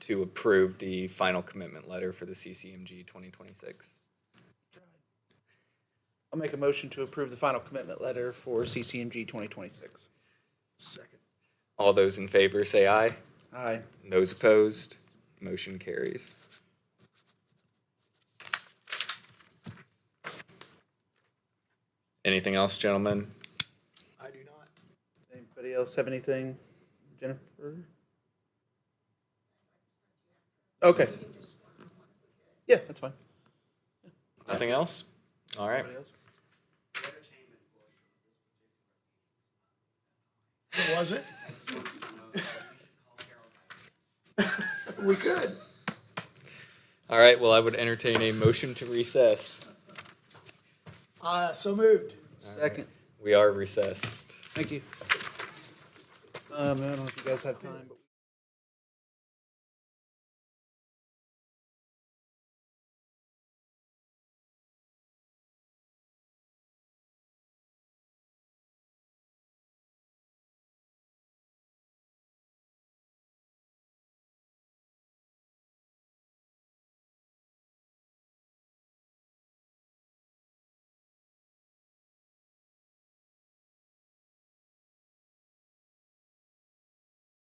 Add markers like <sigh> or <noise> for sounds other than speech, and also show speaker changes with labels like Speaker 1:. Speaker 1: to approve the final commitment letter for the CCMG 2026.
Speaker 2: I'll make a motion to approve the final commitment letter for CCMG 2026.
Speaker 3: Second.
Speaker 1: All those in favor say aye.
Speaker 2: Aye.
Speaker 1: And Those opposed, motion carries. Anything else, gentlemen?
Speaker 3: I do not.
Speaker 2: Anybody else have anything? Jennifer? Okay. Yeah, that's fine.
Speaker 1: Nothing else? All right.
Speaker 2: Anybody else?
Speaker 3: What was it? <laughs> We could.
Speaker 1: All right, well, I would entertain a motion to recess.
Speaker 3: Uh, so moved.
Speaker 2: Second.
Speaker 1: We are recessed.
Speaker 2: Thank you. Um, I don't know if you guys have time, but